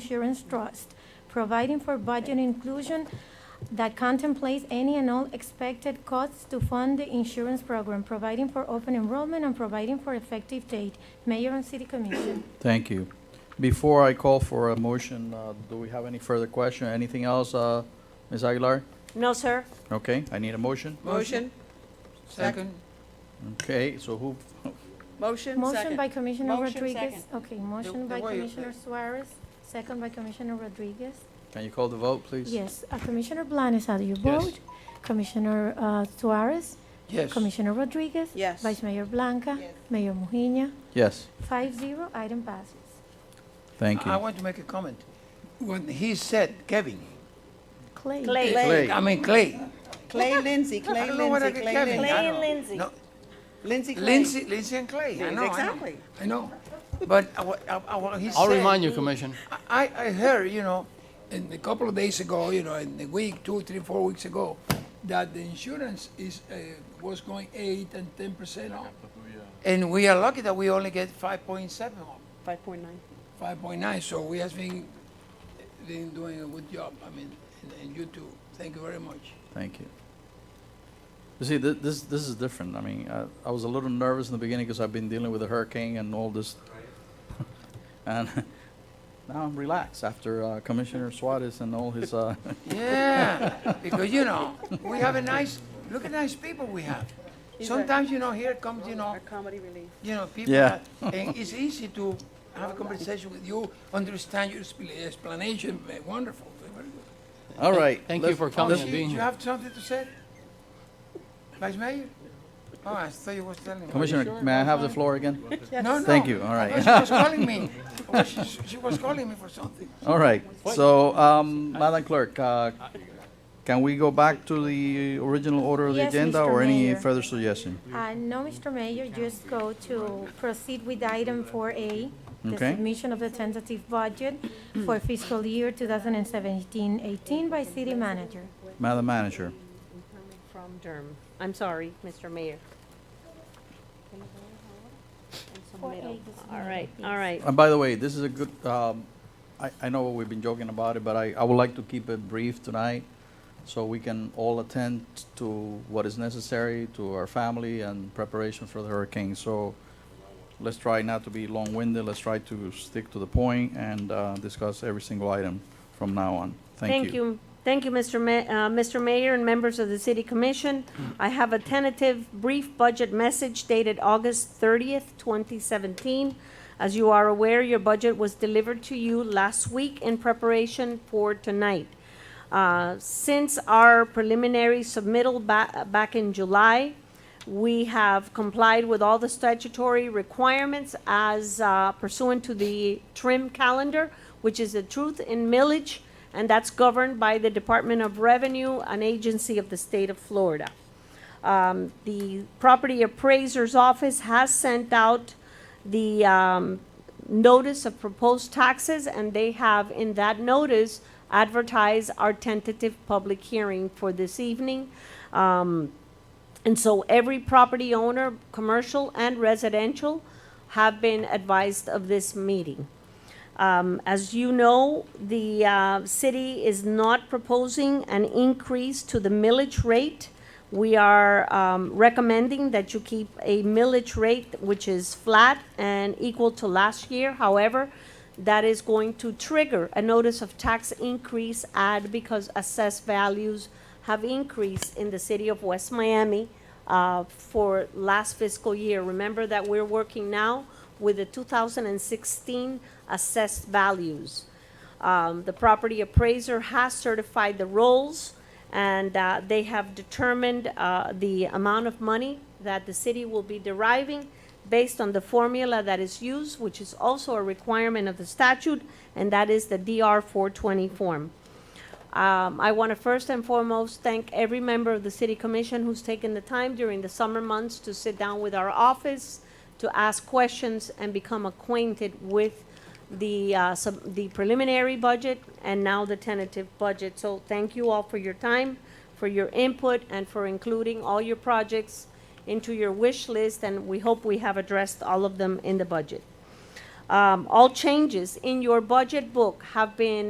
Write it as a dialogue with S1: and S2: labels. S1: Insurance Trust, providing for budget inclusion that contemplates any and all expected costs to fund the insurance program, providing for open enrollment, and providing for effective date. Mayor and City Commission.
S2: Thank you. Before I call for a motion, uh, do we have any further question, anything else, uh, Ms. Aguilar?
S3: No, sir.
S2: Okay, I need a motion.
S4: Motion, second.
S2: Okay, so who,
S4: Motion,
S1: Motion
S4: second.
S1: by Commissioner
S3: Motion,
S1: Rodriguez.
S3: second.
S1: Okay, motion
S4: The-
S1: by
S4: the way uh, you-
S1: Commissioner Suarez, second by Commissioner Rodriguez.
S2: can you call the vote, please?
S1: Yes, uh, Commissioner Blanes, how do you
S2: Yes.
S1: vote? Commissioner uh, Suarez,
S4: Yes.
S1: Commissioner Rodriguez,
S4: Yes.
S1: Vice Mayor Blanca, Mayor Mujina,
S2: Yes,
S1: five zero, item passes.
S2: thank
S4: I
S2: you.
S4: want to make a comment. When he said Kevin,
S1: Clay.
S3: Clay.
S2: Clay.
S4: I mean Clay,
S5: Clay Lindsay,
S4: I
S5: Clay
S4: don't know what I
S5: Lindsay,
S4: could-
S5: Clay
S4: Kevin,
S5: Lindsay.
S3: Clay
S4: I
S3: and
S4: don't-
S3: Lindsay.
S4: no,
S5: Lindsay Clay.
S4: Lindsay, Lindsay and Clay, I know, I know.
S5: Exactly.
S4: I know, but uh, I wa- I, I, wa- he said.
S6: I'll remind you, Commission.
S4: I, I heard, you know, in a couple of days ago, you know, in the week, two, three, four weeks ago, that the insurance is, uh, was going eight and ten percent off. And we are lucky that we only get five point seven off.
S5: Five point nine.
S4: five point nine, so we have been, been doing a good job, I mean, and- and you too, thank you very much.
S2: Thank you. You see, thi- this, this is different. I mean, uh, I was a little nervous in the beginning because I've been dealing with a hurricane and all this. And now I'm relaxed after uh, Commissioner Suarez and all his, uh,
S4: Yeah, because you know, we have a nice, look at nice people we have. Sometimes, you know, here comes, you know,
S5: Our comedy relief.
S4: you know, people,
S2: Yeah.
S4: that- and it's easy to have a conversation with you, understand your expl- explanation, eh, wonderful, very good.
S2: all right.
S6: Thank you
S2: let's-
S6: for
S4: Oh,
S6: coming and
S4: you-
S6: being
S4: You
S6: here.
S4: have something to say? Vice Mayor? Oh, I thought you was telling me.
S2: Commissioner, may I have the floor again?
S4: No, no.
S2: Thank you, all
S4: I
S2: right.
S4: thought She was calling me. Oh, She she was calling me for something.
S2: All right, so, um, Madam Clerk, uh, can we go back to the original order of the
S1: Yes,
S2: agenda
S1: Mr.
S2: or any
S1: Mayor.
S2: further suggestion?
S1: Uh, No, Mr. Mayor, just go to proceed with item 4A, the
S2: Okay.
S1: submission of the tentative budget for fiscal year 2017-18 by city manager.
S2: Madam Manager,
S3: From Durham. I'm sorry, Mr. Mayor. And some
S1: Four
S3: middle.
S1: eggs in the
S3: All
S1: middle,
S3: right, all right.
S2: and by the way, this is a good, um, I, I know we've been joking about it, but I, I would like to keep it brief tonight so we can all attend to what is necessary to our family and preparation for the hurricane. So let's try not to be long-winded, let's try to stick to the point and, uh, discuss every single item from now on. Thank you.
S3: Thank you, Mr. Ma- uh, Mr. Mayor and members of the City Commission. I have a tentative brief budget message dated August thirtieth, twenty seventeen. As you are aware, your budget was delivered to you last week in preparation for tonight. Uh, Since our preliminary submittal ba- back in July, we have complied with all the statutory requirements as uh, pursuant to the TRIM calendar, which is the truth in millage, and that's governed by the Department of Revenue, an agency of the state of Florida. Um, The property appraiser's office has sent out the um, notice of proposed taxes, and they have, in that notice, advertised our tentative public hearing for this evening. Um, and so every property owner, commercial and residential, have been advised of this meeting. Um, as you know, the, uh, city is not proposing an increase to the millage rate. We are, um, recommending that you keep a millage rate which is flat and equal to last year. However, that is going to trigger a notice of tax increase ad because assessed values have increased in the city of West Miami uh, for last fiscal year. Remember that we're working now with the 2016 assessed values. Um, The property appraiser has certified the rolls, and uh, they have determined uh, the amount of money that the city will be deriving based on the formula that is used, which is also a requirement of the statute, and that is the DR 420 form. Um, I want to first and foremost thank every member of the city commission who's taken the time during the summer months to sit down with our office, to ask questions and become acquainted with the, uh, sub- the preliminary budget and now the tentative budget. So thank you all for your time, for your input, and for including all your projects into your wish list, and we hope we have addressed all of them in the budget. Um, Um, all changes in your budget book have been